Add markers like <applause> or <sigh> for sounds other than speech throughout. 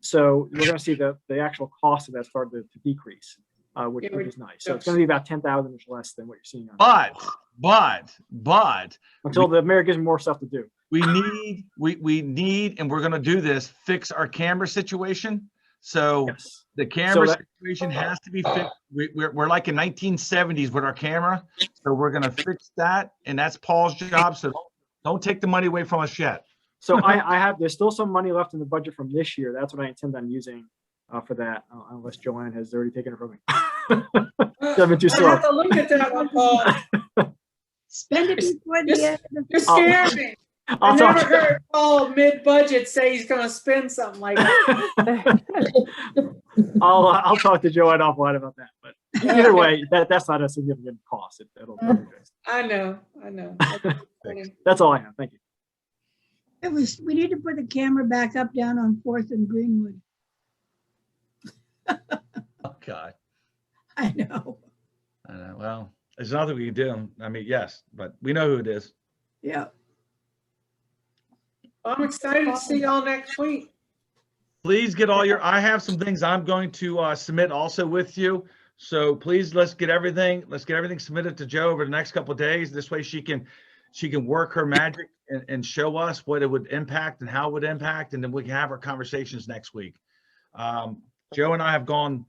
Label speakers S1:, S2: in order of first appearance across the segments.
S1: so we're going to see the, the actual cost of that start to to decrease, uh, which
S2: Yeah,
S1: which
S2: we're-
S1: is nice. So it's going to be about 10,000 ish less than what you're seeing on,
S3: But, but, but
S1: until the mayor gives them more stuff to do.
S3: we need, we, we need, and we're gonna do this, fix our camera situation. So
S1: Yes.
S3: the camera
S1: that-
S3: situation has to be fixed. We, we're, we're like in nineteen seventies with our camera. So we're gonna fix that and that's Paul's job. So don't take the money away from us yet.
S1: So I, I have, there's still some money left in the budget from this year. That's what I intend on using uh, for that, uh, unless Joanne has already taken it from me. <laughs> I've been too
S2: I
S1: slow.
S2: <laughs> have to look at that one,
S3: <laughs>
S2: Paul.
S4: Spend it before
S2: Just-
S4: the end of
S2: You're
S1: Oh.
S2: scaring me. I
S1: I'll
S2: never
S1: talk,
S2: heard Paul mid-budget say he's gonna spend something like that.
S1: <laughs> I'll, uh, I'll talk to Joanne offline about that, but either way, that, that's not a significant cost. It- It'll,
S2: Mm. I know, I
S3: <laughs>
S2: know.
S1: that's all I have. Thank you.
S4: It was, we need to put the camera back up down on Fourth and Greenwood. <laughs>
S3: Oh, God.
S4: I know.
S3: I know, well, there's nothing we can do. I mean, yes, but we know who it is.
S4: Yeah.
S2: I'm excited to see y'all next week.
S3: Please get all your, I have some things I'm going to uh, submit also with you. So please, let's get everything, let's get everything submitted to Joe over the next couple of days. This way she can, she can work her magic and, and show us what it would impact and how it would impact, and then we can have our conversations next week. Um, Joe and I have gone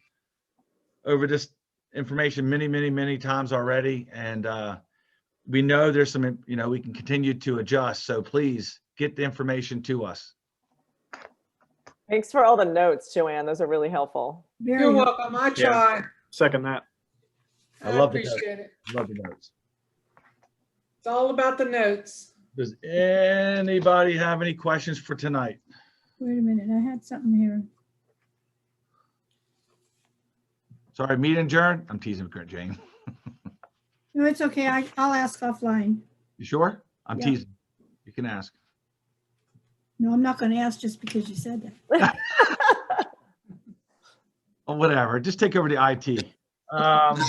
S3: over this information many, many, many times already, and uh, we know there's some, you know, we can continue to adjust. So please get the information to us.
S5: Thanks for all the notes, Joanne. Those are really helpful.
S4: Very
S2: You're
S4: well.
S2: welcome. I try.
S1: Second that.
S3: I
S2: I
S3: love the notes.
S2: appreciate it.
S3: Love the notes.
S2: It's all about the notes.
S3: Does anybody have any questions for tonight?
S4: Wait a minute, I had something here.
S3: Sorry, meet and adjourn. I'm teasing, Kurt Jane.
S4: No, it's okay. I, I'll ask offline.
S3: You sure? I'm
S4: Yeah.
S3: teasing. You can ask.
S4: No, I'm not gonna ask just because you said that.
S3: Oh, whatever. Just take over the IT. Um,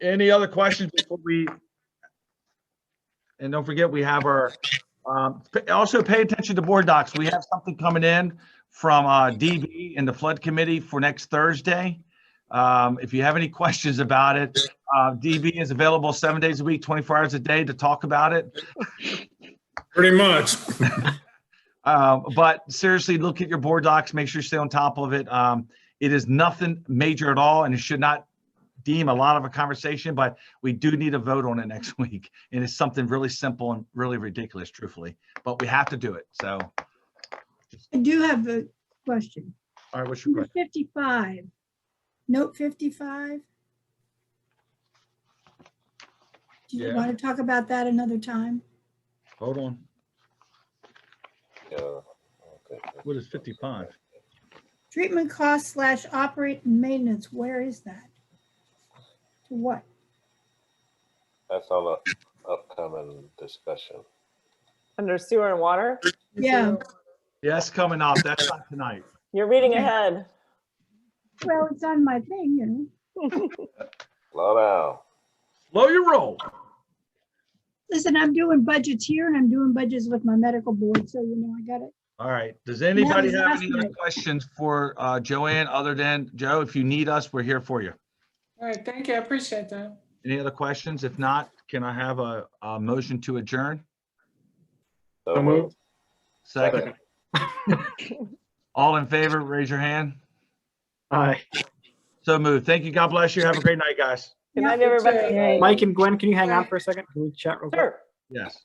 S3: any other questions before we? And don't forget, we have our, um, p- also pay attention to board docs. We have something coming in from, uh, DB and the flood committee for next Thursday. Um, if you have any questions about it, uh, DB is available seven days a week, 24 hours a day to talk about it.
S6: Pretty much.
S3: Um, but seriously, look at your board docs, make sure you stay on top of it. Um, it is nothing major at all and it should not deem a lot of a conversation, but we do need a vote on it next <laughs> week. And it's something really simple and really ridiculous, truthfully, but we have to do it. So,
S4: I do have a question.
S3: all right, what's your
S4: Number
S3: question?
S4: fifty-five, note fifty-five. Do you
S3: Yeah.
S4: want to talk about that another time?
S3: Hold on.
S7: Yeah. okay.
S3: What is 55?
S4: Treatment cost slash operate and maintenance, where is that? To what?
S7: That's all up, upcoming discussion.
S5: Under sewer and water,
S4: Yeah,
S3: Yeah, that's coming up. That's not tonight.
S5: you're reading
S4: Okay.
S5: ahead.
S4: well, it's on my thing, you know.
S7: Slow down.
S3: Slow your roll.
S4: Listen, I'm doing budgets here and I'm doing budgets with my medical board, so you know, I got it.
S3: All right. Does anybody
S4: was
S3: have
S4: last
S3: any other
S4: night.
S3: questions for, uh, Joanne other than, Joe, if you need us, we're here for you.
S2: All right, thank you. I appreciate that.
S3: Any other questions? If not, can I have a, a motion to adjourn?
S1: So moved.
S3: Second. All in favor, raise your hand.
S1: Aye.
S3: So moved. Thank you. God bless you. Have a great night, guys.
S5: Good
S4: Yeah,
S5: night,
S2: you too.
S5: everybody.
S1: Mike and Gwen, can you hang on for a second? Can we chat real quick?
S5: Sure.
S3: Yes.